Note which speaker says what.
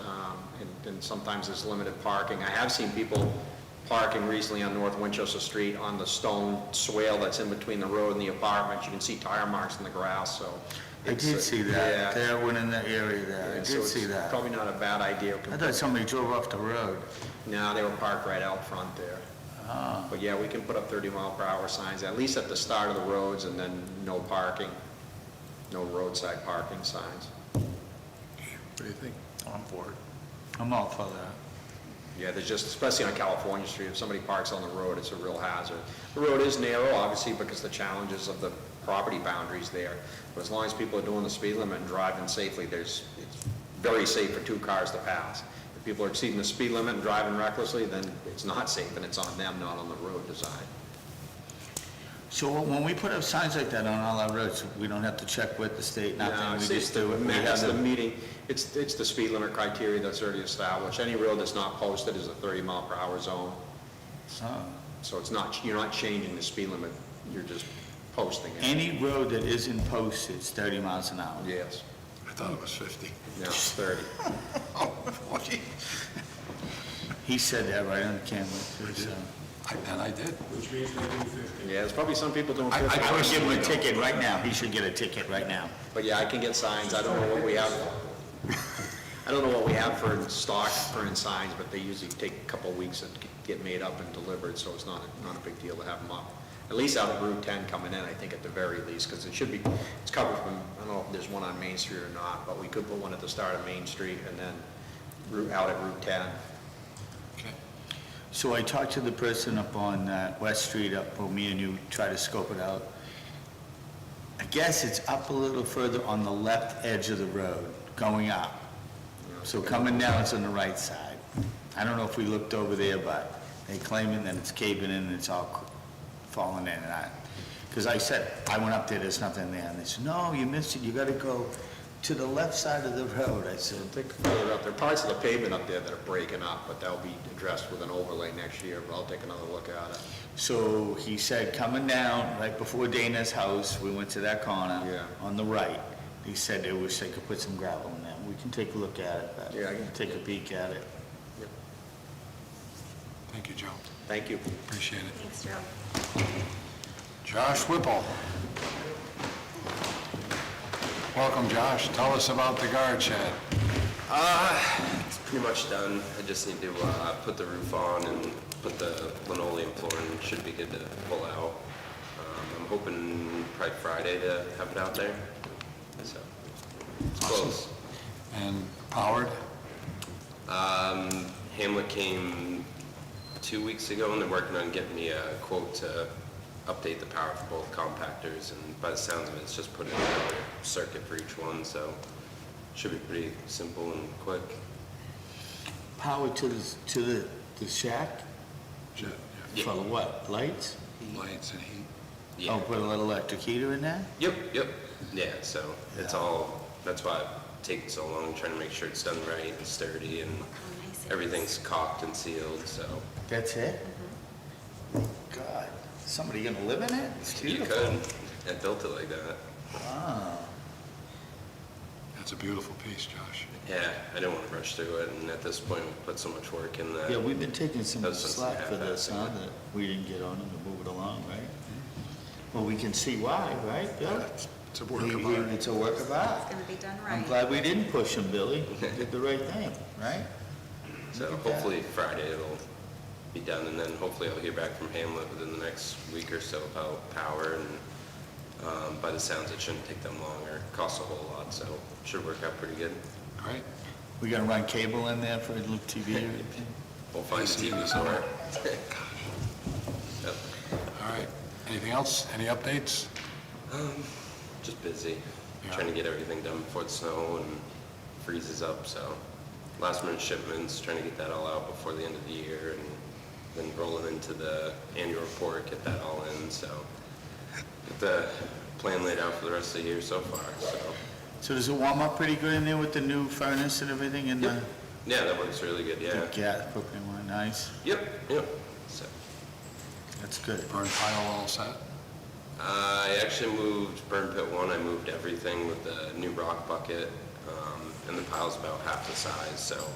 Speaker 1: Um, and sometimes there's limited parking. I have seen people parking recently on North Winchester Street on the stone swale that's in between the road and the apartments. You can see tire marks in the grass, so.
Speaker 2: I
Speaker 1: it's, uh,
Speaker 2: did see that,
Speaker 1: yeah.
Speaker 2: that one in that area there, I
Speaker 1: Yeah, so
Speaker 2: did
Speaker 1: it's
Speaker 2: see that.
Speaker 1: Probably not a bad idea.
Speaker 2: I thought somebody drove off the road.
Speaker 1: No, they were parked right out front there.
Speaker 2: Ah.
Speaker 1: But yeah, we can put up 30 mile per hour signs, at least at the start of the roads, and then no parking, no roadside parking signs.
Speaker 3: What do you think?
Speaker 2: I'm for it. I'm all for that.
Speaker 1: Yeah, there's just, especially on California Street, if somebody parks on the road, it's a real hazard. The road is narrow, obviously, because the challenges of the property boundaries there. But as long as people are doing the speed limit and driving safely, there's, it's very safe for two cars to pass. If people are exceeding the speed limit and driving recklessly, then it's not safe, and it's on them, not on the road design.
Speaker 2: So when when we put up signs like that on all our roads, we don't have to check with the state,
Speaker 1: No,
Speaker 2: nothing, we
Speaker 1: it's
Speaker 2: just
Speaker 1: just
Speaker 2: do it. We have
Speaker 1: the
Speaker 2: the-
Speaker 1: meeting, it's, it's the speed limit criteria that's already established. Any road that's not posted is a 30 mile per hour zone.
Speaker 2: Oh.
Speaker 1: So it's not, you're not changing the speed limit, you're just posting it.
Speaker 2: Any road that isn't posted is 30 miles an hour.
Speaker 1: Yes,
Speaker 3: I thought it was 50.
Speaker 1: no, it's 30.
Speaker 3: Oh, 40.
Speaker 2: He said that right on camera, so.
Speaker 3: I- And I did.
Speaker 4: which means they do fifty.
Speaker 1: Yeah, there's probably some people doing
Speaker 2: I
Speaker 1: 50.
Speaker 2: I would give him a ticket right now, he should get a ticket right now.
Speaker 1: But yeah, I can get signs, I don't know what we have. I don't know what we have for in stock, for in signs, but they usually take a couple of weeks to get made up and delivered, so it's not, not a big deal to have them up. At least out of Route 10 coming in, I think at the very least, because it should be, it's covered from, I don't know if there's one on Main Street or not, but we could put one at the start of Main Street and then route out at Route 10.
Speaker 3: Okay.
Speaker 2: So I talked to the person up on uh, West Street, up where me and you try to scope it out. I guess it's up a little further on the left edge of the road, going up. So coming down, it's on the right side. I don't know if we looked over there, but they claiming that it's caving in and it's all cr- falling in and I, because I said, I went up there, there's nothing there, and they said, no, you missed it, you gotta go to the left side of the road. I said,
Speaker 1: I think further up, there are parts of the pavement up there that are breaking up, but that'll be addressed with an overlay next year, but I'll take another look at it.
Speaker 2: So he said, coming down, right before Dana's house, we went to that corner.
Speaker 1: Yeah.
Speaker 2: On the right, he said they wish they could put some gravel in there. We can take a look at it, but.
Speaker 1: Yeah, I can-
Speaker 2: Take a peek at it.
Speaker 3: Thank you, Joe.
Speaker 1: Thank you.
Speaker 3: Appreciate it.
Speaker 5: Thanks, Joe.
Speaker 3: Josh Whipple. Welcome, Josh. Tell us about the guard shed.
Speaker 6: It's pretty much done. I just need to uh, put the roof on and put the linoleum floor in. Should be good to pull out. Um, I'm hoping probably Friday to have it out there. So it's close.
Speaker 3: And Howard?
Speaker 6: Um, Hamlet came two weeks ago and they're working on getting me a quote to update the power for both compactors. And by the sounds of it, it's just putting in another circuit for each one. So should be pretty simple and quick.
Speaker 2: Power to the, to the, the shack?
Speaker 3: Shed,
Speaker 2: For what, lights?
Speaker 3: yeah. Lights and heat.
Speaker 6: Yeah.
Speaker 2: Oh, put a little electric heater in there?
Speaker 6: Yep, yep, yeah, so it's
Speaker 2: Yeah.
Speaker 6: all, that's why it's taking so long, trying to make sure it's done right and sturdy and
Speaker 5: nice it is.
Speaker 6: everything's caulked and sealed, so.
Speaker 2: That's it? God, somebody gonna live in it? It's
Speaker 6: Mm-hmm. You
Speaker 2: beautiful.
Speaker 6: could, I built it like that.
Speaker 2: Wow.
Speaker 3: That's a beautiful piece, Josh.
Speaker 6: Yeah, I didn't want to rush through it, and at this point, we put so much work in that.
Speaker 2: Yeah, we've been taking
Speaker 6: That
Speaker 2: some
Speaker 6: was just
Speaker 2: slack for this, huh,
Speaker 6: half-assed.
Speaker 2: that we didn't get on and to move it along, right? Well, we can see why, right, Bill?
Speaker 3: That's- It's a work of
Speaker 2: We- we-
Speaker 3: art.
Speaker 2: It's a work of
Speaker 5: It's
Speaker 2: art.
Speaker 5: gonna be done
Speaker 2: I'm
Speaker 5: right.
Speaker 2: glad we didn't push him, Billy. We did the right thing, right?
Speaker 6: So
Speaker 2: Look at that.
Speaker 6: hopefully Friday it'll be done, and then hopefully I'll hear back from Hamlet within the next week or so about power, and um, by the sounds, it shouldn't take them long or cost a whole lot, so should work out pretty good.
Speaker 3: Great.
Speaker 2: We gonna run cable in there for Luke TV or anything?
Speaker 6: We'll find
Speaker 3: see
Speaker 6: TV
Speaker 3: this.
Speaker 6: somewhere. Yep.
Speaker 3: All right. Anything else? Any updates?
Speaker 6: Just busy,
Speaker 3: Yeah.
Speaker 6: trying to get everything done before the snow and freezes up, so last minute shipments, trying to get that all out before the end of the year and then rolling into the annual report, get that all in, so get the plan laid out for the rest of the year so far, so.
Speaker 2: So does it warm up pretty good in there with the new furnace and everything and the?
Speaker 6: Yeah, that works really good,
Speaker 2: the
Speaker 6: yeah.
Speaker 2: Gas, propane one, nice.
Speaker 6: Yep, yep. So,
Speaker 2: That's good.
Speaker 3: Burn pile all set?
Speaker 6: I actually moved burn pit one, I moved everything with the new rock bucket, um, and the pile's about half the size, so